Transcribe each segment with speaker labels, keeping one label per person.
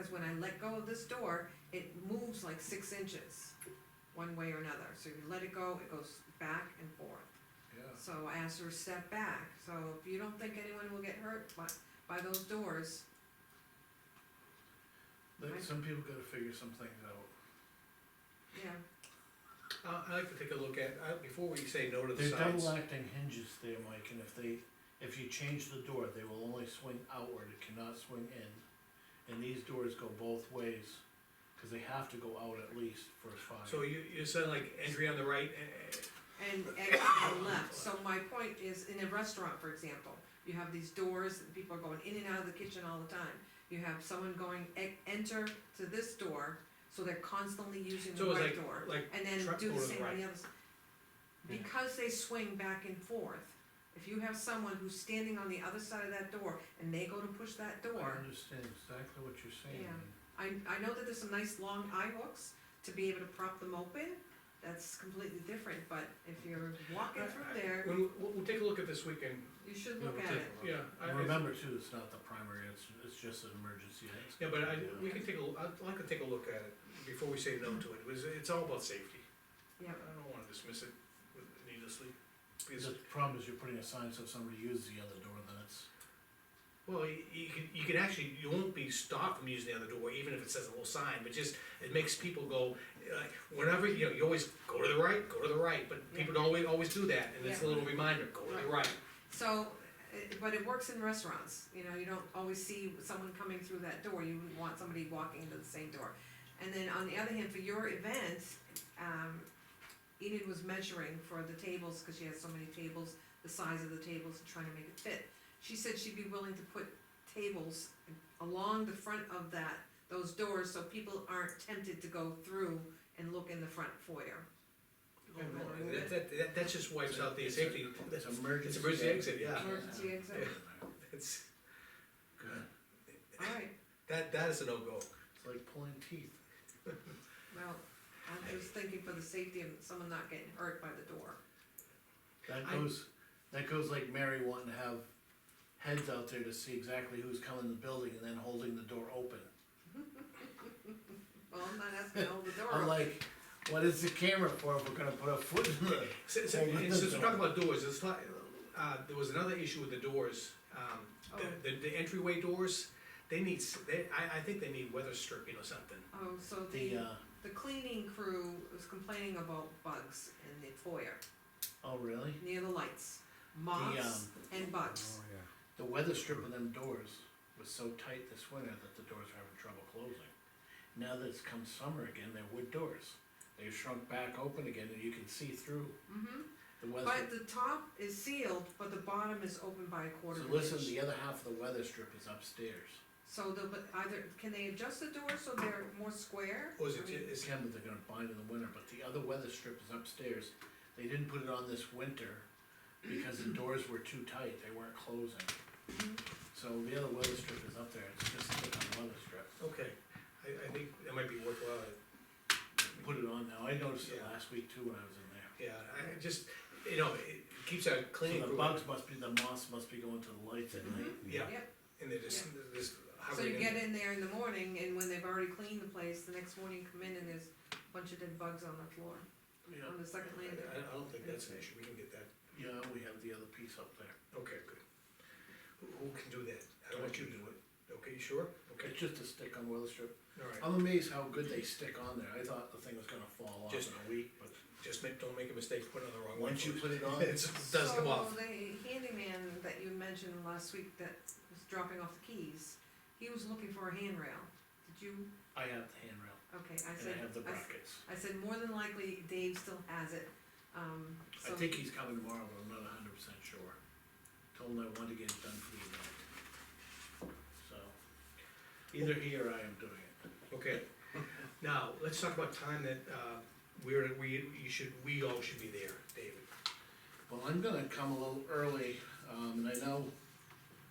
Speaker 1: is when I let go of this door, it moves like six inches, one way or another. So you let it go, it goes back and forth.
Speaker 2: yeah.
Speaker 1: So I asked her to step back, so if you don't think anyone will get hurt by, by those doors,
Speaker 2: Like, some people gotta figure some things out.
Speaker 1: yeah,
Speaker 3: Uh, I'd like to take a look at, uh, before we say no to the
Speaker 2: They're
Speaker 3: signs.
Speaker 2: double acting hinges there, Mike, and if they, if you change the door, they will only swing outward, it cannot swing in. And these doors go both ways, cause they have to go out at least for a
Speaker 3: So
Speaker 2: fire.
Speaker 3: you, you're saying like entry on the right, eh, eh,
Speaker 1: and exit on the left. So my point is, in a restaurant, for example, you have these doors, and people are going in and out of the kitchen all the time. You have someone going, e- enter to this door, so they're constantly using the
Speaker 3: so it's
Speaker 1: right
Speaker 3: like,
Speaker 1: door.
Speaker 3: like
Speaker 1: And then
Speaker 3: Truck
Speaker 1: do the
Speaker 3: goes
Speaker 1: same on
Speaker 3: right.
Speaker 1: the other side.
Speaker 2: Yeah.
Speaker 1: Because they swing back and forth, if you have someone who's standing on the other side of that door and they go to push that
Speaker 2: I
Speaker 1: door,
Speaker 2: understand exactly what you're saying.
Speaker 1: Yeah. I, I know that there's some nice long eye hooks to be able to prop them open, that's completely different, but if you're walking through there,
Speaker 3: When, we- we'll, we'll take a look at this weekend,
Speaker 1: you should
Speaker 2: Yeah,
Speaker 1: look
Speaker 2: we'll
Speaker 1: at
Speaker 2: take
Speaker 1: it.
Speaker 2: a look.
Speaker 3: yeah. I-
Speaker 2: And remember too, it's not the primary, it's, it's just an emergency. that's-
Speaker 3: Yeah, but I, we can take a, I'd like to take a look at it before we say no to it, because it's all about safety.
Speaker 1: Yeah.
Speaker 3: I don't wanna dismiss it needlessly, because,
Speaker 2: The problem is you're putting a sign so if somebody uses the other door, then it's,
Speaker 3: well, you, you can, you can actually, you won't be stopped from using the other door, even if it says a little sign, but just, it makes people go, like, whenever, you know, you always go to the right, go to the right, but people don't always, always do that, and it's a little reminder, go to the right.
Speaker 1: So, eh, but it works in restaurants, you know, you don't always see someone coming through that door, you wouldn't want somebody walking into the same door. And then on the other hand, for your event, um, Enid was measuring for the tables, cause she has so many tables, the size of the tables and trying to make it fit. She said she'd be willing to put tables along the front of that, those doors, so people aren't tempted to go through and look in the front foyer.
Speaker 3: Oh, no, That, that, that- that just wipes out the
Speaker 2: It's a-
Speaker 3: safety,
Speaker 2: it's
Speaker 3: that's,
Speaker 2: emergency.
Speaker 3: it's emergency exit, yeah,
Speaker 1: Emergency exit,
Speaker 3: it's,
Speaker 2: Good,
Speaker 1: alright,
Speaker 3: that, that is a no-go.
Speaker 2: it's like pulling teeth.
Speaker 1: well, I'm just thinking for the safety of someone not getting hurt by the door.
Speaker 2: That
Speaker 3: I-
Speaker 2: goes, that goes like Mary wanting to have heads out there to see exactly who's coming in the building and then holding the door open.
Speaker 1: Well, I'm not asking to hold the door
Speaker 2: I'm
Speaker 1: open.
Speaker 2: like, what is the camera for if we're gonna put a foot in the?
Speaker 3: Since, since
Speaker 2: Well, with this
Speaker 3: since we're talking
Speaker 2: door-
Speaker 3: about doors, it's like, uh, there was another issue with the doors, um,
Speaker 1: Oh.
Speaker 3: the, the, the entryway doors, they need, s- they, I, I think they need weather stripping or something.
Speaker 1: Oh, so
Speaker 2: The,
Speaker 1: the,
Speaker 2: uh,
Speaker 1: the cleaning crew was complaining about bugs in the foyer,
Speaker 2: oh really?
Speaker 1: near the lights, moths
Speaker 2: um,
Speaker 1: and bugs.
Speaker 2: The weather strip of them doors was so tight this winter that the doors were having trouble closing. Now that it's come summer again, they're wood doors. They've shrunk back open again and you can see through
Speaker 3: Oh,
Speaker 1: hmm
Speaker 2: the weather.
Speaker 1: but the top is sealed, but the bottom is open by a quarter
Speaker 2: So
Speaker 1: of an
Speaker 2: listen,
Speaker 1: inch.
Speaker 2: the other half of the weather strip is upstairs.
Speaker 1: So the, but either, can they adjust the door so they're more square?
Speaker 3: Or is
Speaker 1: I
Speaker 3: it,
Speaker 1: mean,
Speaker 3: is,
Speaker 2: December they're gonna bind in the winter, but the other weather strip is upstairs. They didn't put it on this winter because the doors were too tight, they weren't closing.
Speaker 3: Mm-hmm.
Speaker 2: So the other weather strip is up there, it's just a different weather strip.
Speaker 3: okay, I, I think that might be worthwhile,
Speaker 2: Put it on now, I noticed it
Speaker 3: Yeah.
Speaker 2: last week too when I was in there.
Speaker 3: yeah, I I just, you know, it keeps our cleaning
Speaker 2: So the
Speaker 3: crew,
Speaker 2: bugs must be, the moss must be going to the lights at night.
Speaker 3: yeah,
Speaker 1: Yep.
Speaker 3: and they're just, they're
Speaker 1: So
Speaker 3: just hovering
Speaker 1: you
Speaker 3: in
Speaker 1: get
Speaker 3: there.
Speaker 1: in there in the morning and when they've already cleaned the place, the next morning you come in and there's a bunch of dead bugs on the floor,
Speaker 3: Mm-hmm.
Speaker 2: Yeah,
Speaker 1: on the second landing.
Speaker 3: I, I don't think that's an issue, we can get that,
Speaker 2: yeah, we have the other piece up there.
Speaker 3: okay, good. Who, who can do that? I don't want you to do it, okay, you sure? Okay,
Speaker 2: It's just a stick on weather strip.
Speaker 3: all right.
Speaker 2: I'm amazed how good they stick on there. I thought the thing was gonna fall off in
Speaker 3: Just-
Speaker 2: a week, but
Speaker 3: Just make, don't make a mistake, put it on the wrong one.
Speaker 2: once you
Speaker 3: first.
Speaker 2: put it on,
Speaker 3: It's- It does come off.
Speaker 1: So the handyman that you mentioned last week that was dropping off the keys, he was looking for a handrail. Did you,
Speaker 2: I have the handrail.
Speaker 1: okay, I
Speaker 2: And
Speaker 1: said,
Speaker 2: I have the
Speaker 1: I s-
Speaker 2: brackets.
Speaker 1: I said, more than likely Dave still has it, um,
Speaker 2: I
Speaker 1: so.
Speaker 2: think he's coming tomorrow, but I'm not hundred percent sure. Told him I wanted to get it done for the event. So, either he or I am doing it.
Speaker 3: Okay, now, let's talk about time that, uh, we're, we, you should, we all should be there, David.
Speaker 2: Well, I'm gonna come a little early, um, and I know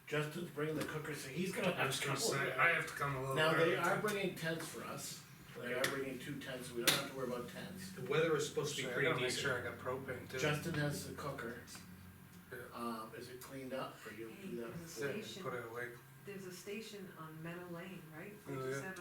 Speaker 2: Justin's bringing the cooker, so he's gonna
Speaker 4: I
Speaker 2: have
Speaker 4: was
Speaker 2: to
Speaker 4: gonna
Speaker 2: come
Speaker 4: say,
Speaker 2: over.
Speaker 4: I have to come a little
Speaker 2: Now,
Speaker 4: early.
Speaker 2: they are bringing tents for us. They are bringing two tents, so we don't have to worry about tents.
Speaker 3: The weather is supposed to be
Speaker 4: So I
Speaker 3: pretty
Speaker 4: gotta make
Speaker 3: decent.
Speaker 4: sure I got propane too.
Speaker 2: Justin has the cooker.
Speaker 4: Yeah.
Speaker 2: Um, is it cleaned up or you?
Speaker 1: Hey, there's a
Speaker 4: Yeah,
Speaker 1: station,
Speaker 4: Put it away.
Speaker 1: there's a station on Meadow Lane, right?
Speaker 4: Oh, yeah.
Speaker 1: 57.